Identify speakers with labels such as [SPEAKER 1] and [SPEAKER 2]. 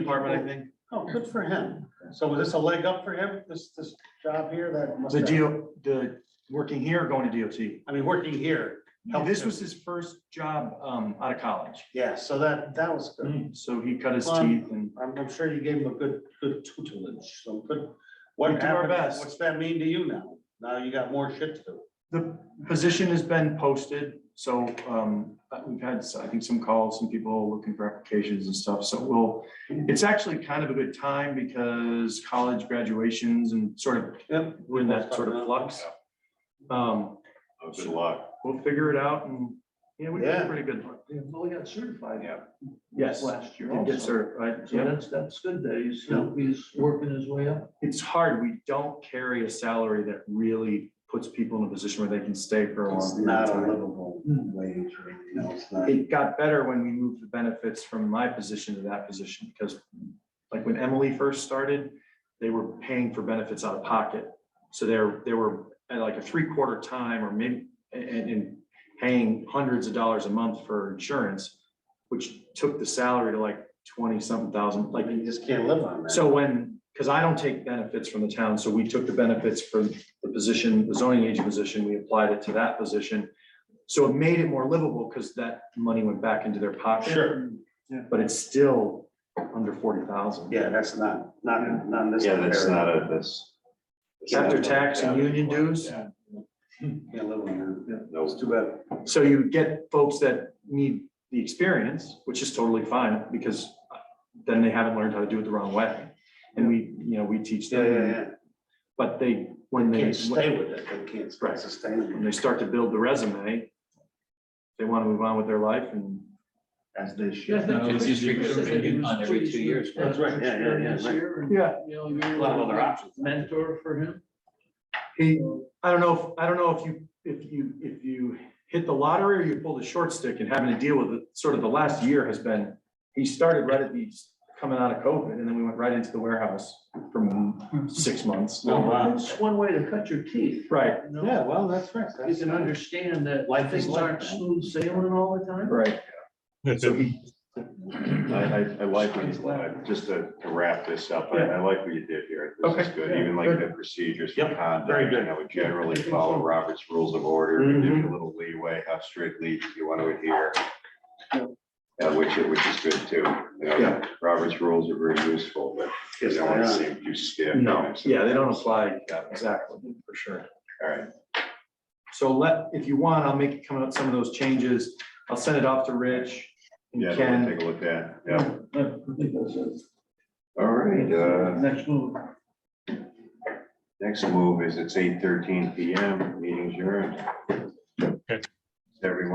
[SPEAKER 1] department, I think.
[SPEAKER 2] Oh, good for him. So was this a leg up for him, this, this job here that? must
[SPEAKER 1] The
[SPEAKER 2] have-
[SPEAKER 1] deal, the, working here, or going to DOT.
[SPEAKER 2] I mean, working here. helped
[SPEAKER 1] This
[SPEAKER 2] him.
[SPEAKER 1] was his first job, um, out of college.
[SPEAKER 2] Yeah, so that, that was good.
[SPEAKER 1] So he cut his
[SPEAKER 2] Well,
[SPEAKER 1] teeth and
[SPEAKER 2] I'm, I'm sure you gave him a good, good tutelage, so good. What
[SPEAKER 1] We do our
[SPEAKER 2] happened,
[SPEAKER 1] best.
[SPEAKER 2] what's that mean to you now? Now you got more shit to do.
[SPEAKER 1] the position has been posted. So, um, we've had, I think, some calls, some people looking for applications and stuff. So we'll, it's actually kind of a good time because college graduations and sort of
[SPEAKER 2] Yep.
[SPEAKER 1] we're in that sort of flux. Um,
[SPEAKER 3] Oh, Good luck.
[SPEAKER 1] we'll figure it out and, you know, we
[SPEAKER 2] Yeah.
[SPEAKER 1] did pretty good.
[SPEAKER 4] Well, he got certified.
[SPEAKER 3] Yeah.
[SPEAKER 1] Yes.
[SPEAKER 4] Last year
[SPEAKER 1] Did get
[SPEAKER 4] also.
[SPEAKER 1] certified.
[SPEAKER 4] So
[SPEAKER 1] Yeah.
[SPEAKER 4] that's, that's good that he's,
[SPEAKER 2] Yeah.
[SPEAKER 4] he's working his way up.
[SPEAKER 1] It's hard. We don't carry a salary that really puts people in a position where they can stay for a
[SPEAKER 2] It's
[SPEAKER 1] long period of
[SPEAKER 2] not a
[SPEAKER 1] time.
[SPEAKER 2] livable
[SPEAKER 4] Hmm.
[SPEAKER 2] wage or anything else. not-
[SPEAKER 1] It got better when we moved the benefits from my position to that position because like when Emily first started, they were paying for benefits out of pocket. So they're, they were at like a three quarter time or maybe, and, and paying hundreds of dollars a month for insurance, which took the salary to like twenty something thousand, like
[SPEAKER 2] Like, you just can't live on that.
[SPEAKER 1] so when, because I don't take benefits from the town, so we took the benefits for the position, the zoning agent position, we applied it to that position. So it made it more livable because that money went back into their pocket.
[SPEAKER 2] Sure.
[SPEAKER 1] But it's still under forty thousand.
[SPEAKER 2] Yeah, that's not, not, not in this.
[SPEAKER 3] Yeah, that's
[SPEAKER 2] area.
[SPEAKER 3] not a, that's.
[SPEAKER 1] After tax and union dues.
[SPEAKER 3] Yeah,
[SPEAKER 2] Can't live on that. It's
[SPEAKER 3] No,
[SPEAKER 2] too bad.
[SPEAKER 1] So you get folks that need the experience, which is totally fine, because then they haven't learned how to do it the wrong way. And we, you know, we teach
[SPEAKER 2] Yeah, yeah,
[SPEAKER 1] them,
[SPEAKER 2] yeah.
[SPEAKER 1] but they, when they.
[SPEAKER 2] Can't stay with it. They can't
[SPEAKER 1] Right.
[SPEAKER 2] sustain
[SPEAKER 1] when
[SPEAKER 2] it.
[SPEAKER 1] they start to build the resume, they want to move on with their life and
[SPEAKER 2] As they
[SPEAKER 4] Yeah, I think
[SPEAKER 5] No, it's
[SPEAKER 4] Chris
[SPEAKER 5] usually renewed
[SPEAKER 4] said that he was
[SPEAKER 5] on every
[SPEAKER 4] pleased
[SPEAKER 5] two years.
[SPEAKER 4] with that
[SPEAKER 2] That's right, yeah, yeah, yeah,
[SPEAKER 4] experience
[SPEAKER 2] right.
[SPEAKER 4] here and,
[SPEAKER 1] Yeah.
[SPEAKER 4] You know, you're.
[SPEAKER 2] Lot of other options.
[SPEAKER 4] Mentor for him.
[SPEAKER 1] he, I don't know, if I don't know if you, if you, if you hit the lottery or you pull the short stick and having to deal with it, sort of the last year has been, he started right at the, coming out of COVID and then we went right into the warehouse for six months.
[SPEAKER 2] Oh, wow.
[SPEAKER 4] It's one way to cut your teeth.
[SPEAKER 1] Right,
[SPEAKER 4] you know?
[SPEAKER 2] Yeah, well, that's right.
[SPEAKER 4] You
[SPEAKER 2] That's-
[SPEAKER 4] can understand that
[SPEAKER 2] Life is
[SPEAKER 4] things
[SPEAKER 2] like
[SPEAKER 4] aren't
[SPEAKER 2] that.
[SPEAKER 4] smooth sailing all the time.
[SPEAKER 1] right. So he,
[SPEAKER 3] I, I, I like what you, I- just to to wrap this up, I, I like what you did here. This is
[SPEAKER 1] Okay.
[SPEAKER 3] good, even like the procedures for
[SPEAKER 1] Yep,
[SPEAKER 3] conduct.
[SPEAKER 1] very good. Mm-hmm.
[SPEAKER 3] You know, we generally follow Robert's rules of order, give you a little leeway, how strictly you want to adhere. Uh, which, which is good too. You know,
[SPEAKER 1] Yeah.
[SPEAKER 3] Robert's rules are very useful, but you
[SPEAKER 2] Yes,
[SPEAKER 3] don't want to
[SPEAKER 2] they are.
[SPEAKER 3] seem too stiff.
[SPEAKER 1] no, yeah, they don't apply,
[SPEAKER 3] Got it.
[SPEAKER 1] exactly, for sure.
[SPEAKER 3] All right.
[SPEAKER 1] So let, if you want, I'll make, come up some of those changes. I'll send it off to Rich
[SPEAKER 3] Yeah,
[SPEAKER 1] and
[SPEAKER 3] we'll
[SPEAKER 1] Ken.
[SPEAKER 3] take a look at, it. yeah.
[SPEAKER 4] Yeah, I think that's it.
[SPEAKER 3] All right, uh,
[SPEAKER 4] Next move.
[SPEAKER 3] next move is it's eight thirteen P M, meeting's adjourned.